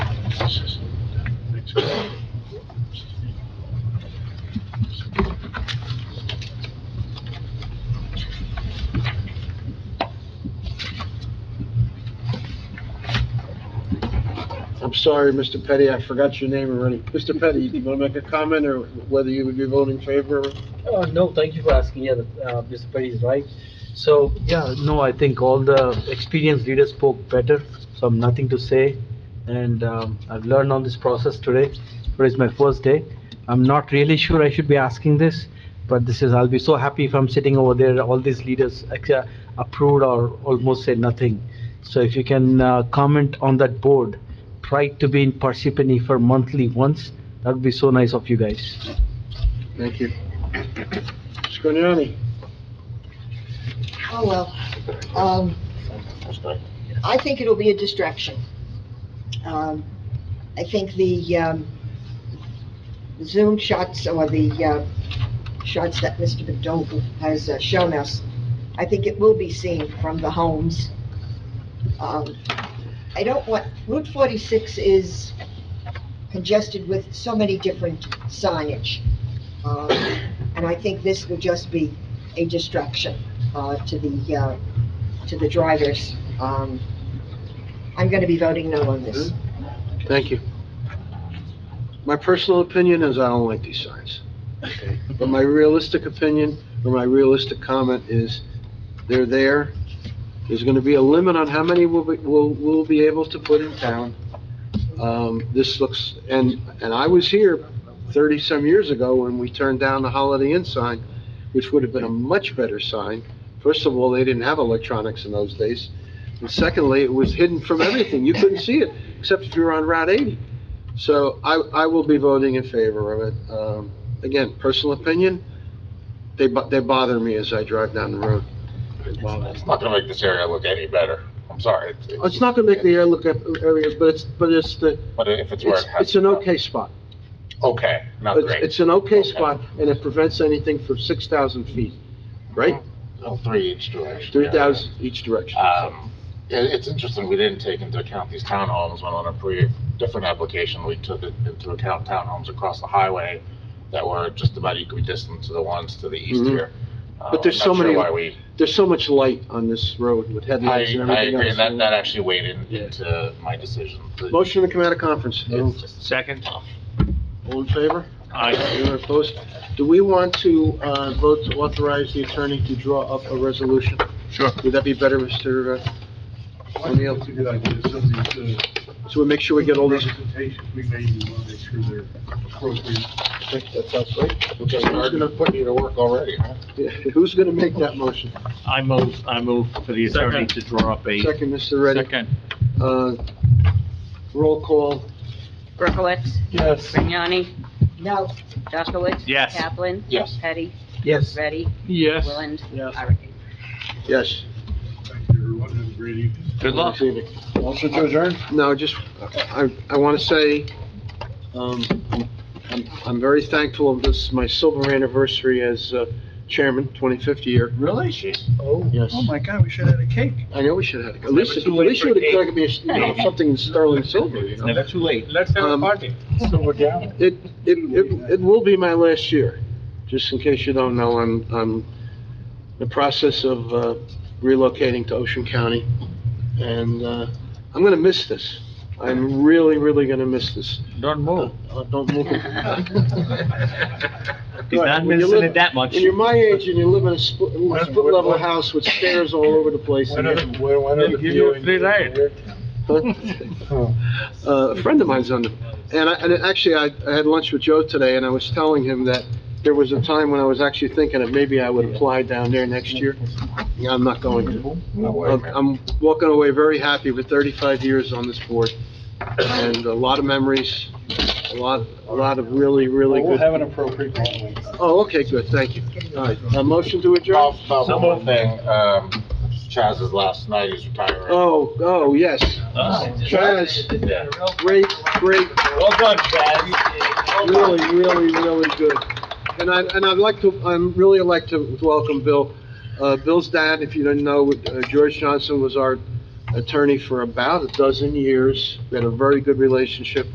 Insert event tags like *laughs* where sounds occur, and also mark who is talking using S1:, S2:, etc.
S1: sorry, Mr. Petty, I forgot your name already. Mr. Petty, do you want to make a comment or whether you would be voting in favor?
S2: Uh, no, thank you for asking, yeah, uh, Mr. Perry is right. So, yeah, no, I think all the experienced leaders spoke better, so I'm nothing to say. And, um, I've learned on this process today, today's my first day. I'm not really sure I should be asking this, but this is, I'll be so happy if I'm sitting over there, all these leaders ac- approved or almost said nothing. So if you can, uh, comment on that board, try to be in Parsippany for monthly once, that would be so nice of you guys.
S1: Thank you. Scrignani?
S3: Oh, well, um, I think it'll be a distraction. Um, I think the, um, Zoom shots or the, uh, shots that Mr. McDougall has uh, shown us, I think it will be seen from the homes. Um, I don't want, Route forty-six is congested with so many different signage. Um, and I think this will just be a distraction uh, to the, uh, to the drivers. Um, I'm going to be voting no on this.
S1: Thank you. My personal opinion is I don't like these signs. Okay. But my realistic opinion, or my realistic comment is, they're there. There's gonna be a limit on how many we'll, be- we'll, we'll be able to put in town. Um, this looks, and, and I was here thirty-some years ago when we turned down the Holiday Inn sign, which would have been a much better sign. First of all, they didn't have electronics in those days. And secondly, it was hidden from everything. You couldn't see it, except if you were on Route 80. So I, I will be voting in favor of it. Um, again, personal opinion, they, bo- they bother me as I drive down the road. They bother me.
S4: It's not gonna make this area look any better. I'm sorry.
S1: Oh, It's not gonna make the air look up, area, but it's, but it's the,
S4: But if it's where
S1: it's,
S4: it has.
S1: it's an okay spot.
S4: Okay, not
S1: It's,
S4: great.
S1: it's an okay
S4: Okay.
S1: spot, and it prevents anything from 6,000 feet, right?
S4: Oh, Three each direction.
S1: 3,000 each direction.
S4: Um, it, it's interesting, we didn't take into account these townhomes when on a pre, different application, we took it into account townhomes across the highway that were just about equal distance to the ones to the east
S1: Mhm.
S4: here. Uh,
S1: But there's
S4: I'm not
S1: so many-
S4: sure Why we,
S1: There's so much light on this road with
S4: I,
S1: headlights and
S4: I
S1: everything
S4: agree,
S1: else.
S4: that, that actually weighed in-
S1: Yeah.
S4: into my decision. The-
S1: Motion to come out of conference.
S4: It's just-
S5: Second.
S1: All in favor?
S5: Aye.
S1: Anyone opposed? Do we want to uh, vote to authorize the attorney to draw up a resolution?
S4: Sure.
S1: Would that be better, Mr. uh, O'Neill?
S6: That's a good idea, subject to.
S1: So we make sure we get all these.
S6: Representations we made, we want to make sure they're appropriate.
S1: That sounds right.
S4: Which is hard to put you to work already, huh?
S1: Who's going to make that motion?
S5: I move, I move for the attorney to draw up a.
S1: Second, Mr. Reddy. Uh, Roll call,
S7: Berkowitz.
S5: Yes.
S7: Grignani.
S3: No,
S7: Jaskowitz.
S5: Yes.
S7: Kaplan.
S4: Yes.
S7: Petty.
S2: Yes.
S7: Ready.
S5: Yes.
S7: Willand.
S1: Yes.
S7: Irick.
S1: yes.
S6: Thank you, everyone, have a great evening.
S5: Good luck.
S1: Motion to adjourn? No, just, I, I want to say, um, I'm, I'm very thankful of this, my silver anniversary as uh, chairman, 25th year.
S6: Really?
S1: Yes.
S6: Oh, my God, we should have had a cake.
S1: I know we should have, at least, at
S5: never too late
S1: least
S5: for
S1: you
S5: a
S1: would have
S5: cake.
S1: given me, you know, something in sterling silver, you know?
S5: Never too late.
S6: Let's
S1: have a Um, *laughs*
S6: party. Silver gown.
S1: It, it, it, it will be my last year, just in case you don't know, I'm, I'm in the process of uh, relocating to Ocean County, and, uh, I'm gonna miss this. I'm really, really gonna miss this.
S5: Don't move.
S1: Uh, Don't *laughs* look at me.
S5: He's not
S1: When you
S5: missing
S1: live-
S5: it that much.
S1: When you're my age and you live in a split, split level house with stairs all over the place.
S6: When
S1: and
S6: are,
S1: you-
S6: the- when when are the
S5: Give you a
S6: viewing-
S5: free ride.
S1: *laughs* Uh, A friend of mine's on, the- and I, and actually, I, I had lunch with Joe today, and I was telling him that there was a time when I was actually thinking that maybe I would apply down there next year. Yeah, I'm not going to.
S4: No way,
S1: I'm
S4: man.
S1: I'm walking away very happy with thirty-five years on this board, and a lot of memories, a lot, a lot of really, really
S6: We'll
S1: good.
S6: have an appropriate following.
S1: Oh, okay, good, thank you. All right, a motion to adjourn?
S4: Bob, Bob, uh, one more thing, um, Chaz's last night, he's retiring.
S1: Oh, oh, yes.
S5: Oh.
S1: Chaz, great, great
S5: Well done, Chad.
S1: really, really, really good. And I, and I'd like to, I'm really like to welcome Bill. Uh, Bill's dad, if you didn't know, uh, George Johnson was our attorney for about a dozen years. We had a very good relationship.